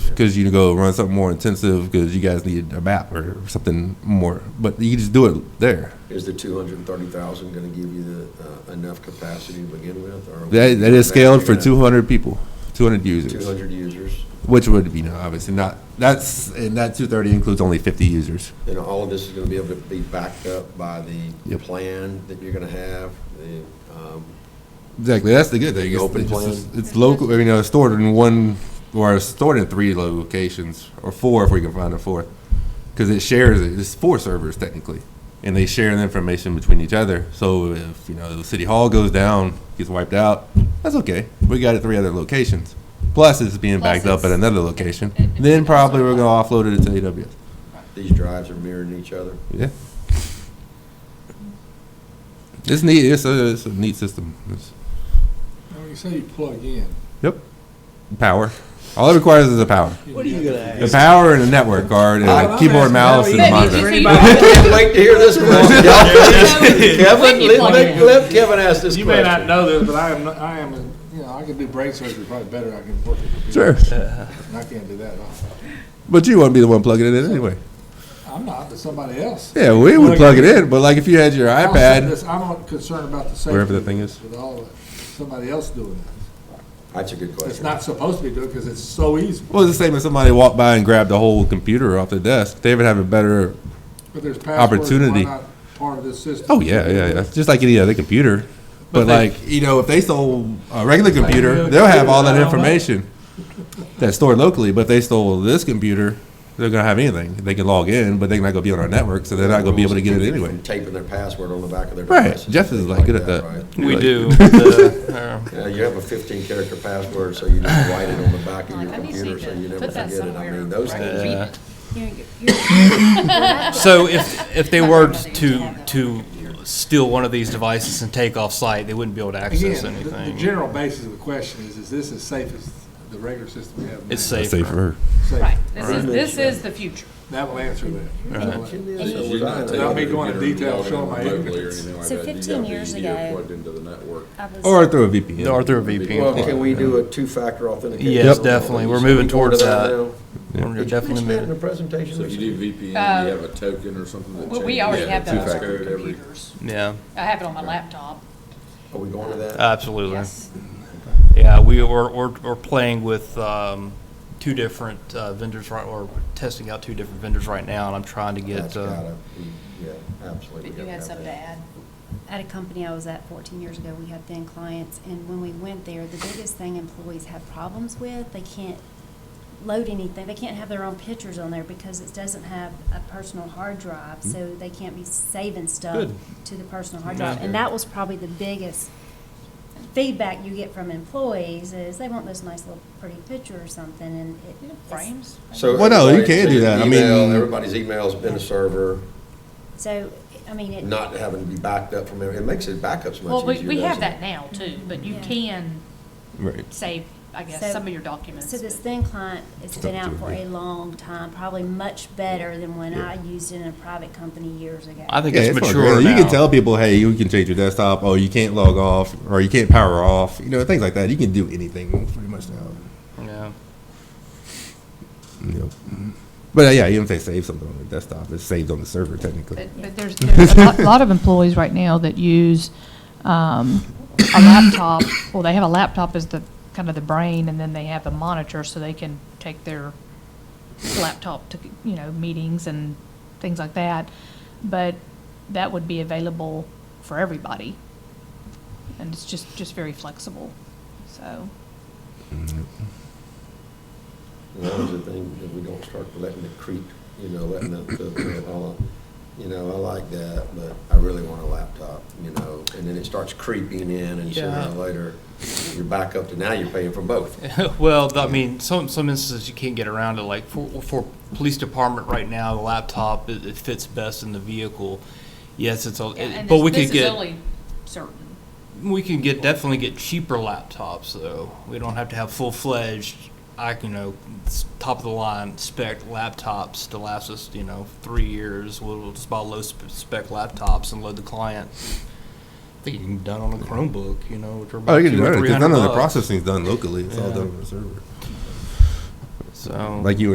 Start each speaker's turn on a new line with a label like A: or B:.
A: because you go run something more intensive because you guys needed a map or something more. But you just do it there.
B: Is the two hundred and thirty thousand gonna give you the, uh, enough capacity to begin with, or?
A: That, that is scaled for 200 people, 200
B: Two
A: users,
B: hundred users,
A: which would be no, obviously not. That's and that 230 includes only 50 users.
B: and all of this is gonna be able to be backed up by the
A: Yep.
B: plan that you're gonna have, the, um,
A: Exactly. That's the good thing. It's,
B: Open
A: it's,
B: plan.
A: just- it's local. I mean, uh, stored in one or stored in three locations or four if we can find a fourth, because it shares it. It's four servers technically, and they share the information between each other. So if you know the city hall goes down, gets wiped out, that's okay. We got it three other locations. Plus, it's being
C: Plus
A: backed up at
C: it's-
A: another location.
C: it- it's
A: then probably we're
C: also-
A: gonna offload it to AWS.
B: these drives are mirroring each other.
A: Yeah. It's neat. It's a, it's a neat system. It's
D: Now, you say you plug in.
A: power. All it requires is a power.
E: What are you gonna
A: The
E: ask?
A: power and the network card and a
D: I'm
A: keyboard,
D: asking
A: mouse,
D: how
A: and
D: you-
A: a
D: Maybe
C: you
A: monitor.
C: see-
B: Can't wait to hear this question.
C: When
B: Kevin,
C: you
B: let,
C: plug
B: let-
C: in.
B: let Kevin ask this
D: You may not
B: question.
D: know this, but I am, not- I am, a- you know, I can do brain surgery probably better than I can work at a computer.
A: Sure,
D: And I can't do that. I-
A: but you wouldn't be the one plugging it in anyway.
D: I'm not, but somebody else.
A: Yeah, we would plug it in, but like if you had your
D: I'm saying
A: iPad,
D: this, I'm not concerned about the safety.
A: Wherever the thing is.
D: With all of it. Somebody else doing that.
B: That's a good
D: It's
B: question.
D: not supposed to be doing because it's so easy,
A: well, it's the same as somebody walked by and grabbed the whole computer off their desk. They would have a better.
D: but there's passwords. why
A: Opportunity.
D: not Part of this system.
A: Oh yeah, yeah, yeah. Just like any other computer, but,
D: they-
A: like you know, if they stole a regular
D: Like a
A: computer,
D: regular
A: they'll have
D: computer,
A: all that
D: I don't know.
A: information that's stored locally. But if they stole this computer, they're gonna have anything. They can log in, but they're not gonna be on our network, so they're not gonna be able to get it anyway.
B: Taping their password on the back of their
A: Right.
B: devices.
A: Jeff is, like, good at that.
B: right?
F: We
A: Like-
F: do. but the, um,
B: Yeah, you have a fifteen character password, so you just write it on the back of your
C: I just
B: computer,
C: need
B: so
C: to
B: you never
C: put that
B: forget it. I
C: somewhere.
B: mean, those
C: Right.
B: things.
F: uh,
C: You're-
F: uh, So if, if they were to, to steal one of these devices and take off-site, they wouldn't be able to access
D: Again, the- the
F: anything.
D: general basis of the question is, is this as safe as the regular system we have? now?
F: It's safer.
D: Safe.
C: Right, this is, this is the future.
D: That will answer that.
F: Right.
D: Without me going into detail, showing my ignorance.
G: So 15 years ago-
H: Plugged into the network.
G: I was-
A: Or through a VPN.
F: Or through a
B: Well,
F: VPN.
B: can we do a two-factor authentication?
F: Yes, definitely. We're moving towards that.
B: now?
F: We're
B: Did you
F: definitely
B: mention that in
F: moving.
B: the presentation?
H: So if you
B: Mr.
H: do VPN, you
C: Uh,
H: have a token or something that
C: Well,
H: changes.
C: we already
H: Yeah,
C: have
H: two
C: that on
H: factor
C: our
H: every-
C: computers.
F: Yeah,
C: I have it on my laptop.
B: Are we going to
F: Uh,
B: that?
F: absolutely.
C: Yes.
F: Yeah, we were, we're, we're playing with, um, two different uh, vendors right, or testing out two different vendors right now, and I'm trying to
B: That's
F: get, uh,
B: gotta be- Yeah, absolutely.
C: But
B: gotta
C: you had
B: have
C: something to
B: that.
C: add?
G: At a company I was at 14 years ago, we had thin clients, and when we went there, the biggest thing employees have problems with, they can't load anything, they can't have their own pictures on there because it doesn't have a personal hard drive, so they can't be saving stuff
F: Good.
G: to the personal hard
F: Yeah.
G: drive. And that was probably the biggest feedback you get from employees is they want this nice little pretty picture or something, and it.
C: You know,
G: it's-
C: Frames?
B: So
A: Well, no, you
B: everybody-
A: can do that. I
B: email,
A: mean-
B: Everybody's email's been a server,
G: So, I mean, it.
B: not having to be backed up from, every- it makes it backups
C: Well,
B: much
C: we,
B: easier.
C: we have
B: doesn't it?
C: that now too, but you
G: Yeah.
C: can
A: Right.
C: save, I guess,
G: So-
C: some of your documents.
G: So this thin client has
A: It's
G: been
A: up to
G: out for
A: you.
G: a long time, probably much better than when I used it in a private company years ago.
F: I think
A: Yeah,
F: it's
A: it's not
F: mature
A: crazy. You
F: now.
A: can tell people, hey, you can change your desktop. Oh, you can't log off, or you can't power off. You know, things like that. You can do anything pretty much now.
F: Yeah.
A: You know. But uh, yeah, even if they save something on the desktop, it's saved on the server technically.
C: But, but there's, there's
I: a lot- lot of employees right now that use um, a laptop, well, they have a laptop as the, kind of the brain, and then they have a monitor so they can take their laptop to, you know, meetings and things like that. But that would be available for everybody. And it's just, just very flexible, so.
B: As long as the thing, that we don't start letting it creep, you know, letting the, the- the, all, you know, I like that, but I really want a laptop, you know, and then it starts creeping in and sooner
F: Yeah.
B: or later, you're back up to now you're paying for both.
F: Well, th- I mean, some, some instances you can't get around it, like for, for police department right now, the laptop, it, it fits best in the vehicle. Yes, it's, all.
C: and
F: but
C: this,
F: we
C: this
F: could
C: is
F: get,
C: only certain.
F: we can get, definitely get cheaper laptops though. We don't have to have full-fledged, I, you know, s- top-of-the-line spec laptops to last us, you know, three years. We'll we'll just buy low-spec laptops and load the client. I think you can be done on a Chromebook, you know, which are
A: Oh,
F: about
A: you can
F: two
A: do
F: or
A: it
F: three
A: because
F: hundred
A: none of the
F: bucks.
A: processing is done locally. It's all
F: Yeah.
A: done on the server.
F: So
A: like you